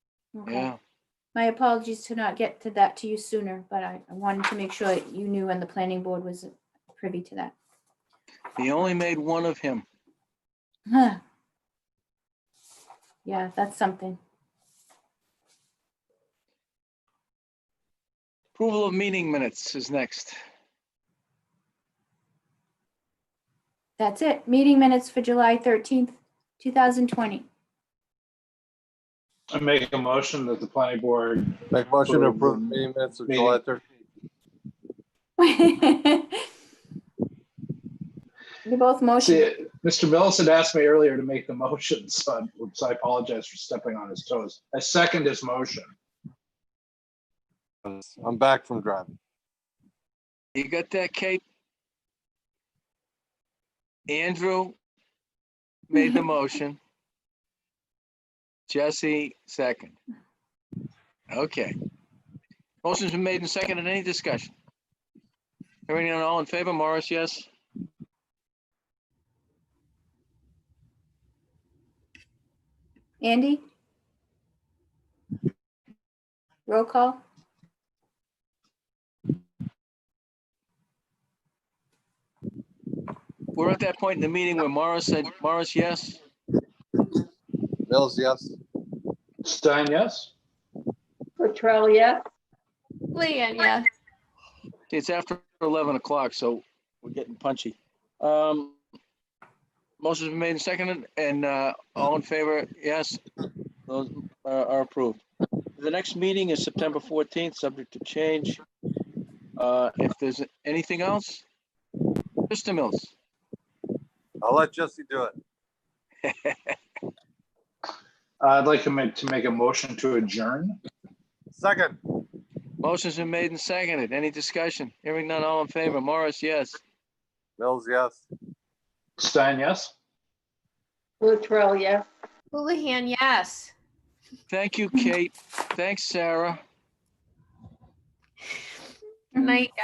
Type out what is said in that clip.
Okay. Yeah, My apologies to not get to that to you sooner, but I I wanted to make sure that you knew and the planning board was privy to that. he only made one of him. Huh. Yeah, that's something. Approval of meeting minutes is next. That's it. Meeting minutes for July 13th, 2020. I make a motion that the planning board, Make motion to For approve one meeting minutes of July meeting. 13th. You both motion. see, Mr. Mills had asked me earlier to make the motion, so I- so I apologize for stepping on his toes. I second his motion. I'm back from driving. You got that, Kate? Andrew made the motion. Jesse, second. Okay. Motion's been made and seconded. Any discussion? Hearing none, all in favor? Morris, yes? Andy? Roll call? We're at that point in the meeting where Morris said, Morris, yes? Mills, yes. Stein, yes? Latrell, yes. Leanne, yes. It's after 11 o'clock, so we're getting punchy. Um, Motion's been made and seconded, and uh, all in favor, yes, those are are approved. The next meeting is September 14th, subject to change. Uh, If there's anything else, Mr. Mills, I'll let Jesse do it. I'd like to make, to make a motion to adjourn. Second, motion's been made and seconded. Any discussion? Hearing none, all in favor. Morris, yes. Mills, yes. Stein, yes? Latrell, yes. Houlihan, yes. Thank you, Kate. Thanks, Sarah. Good night,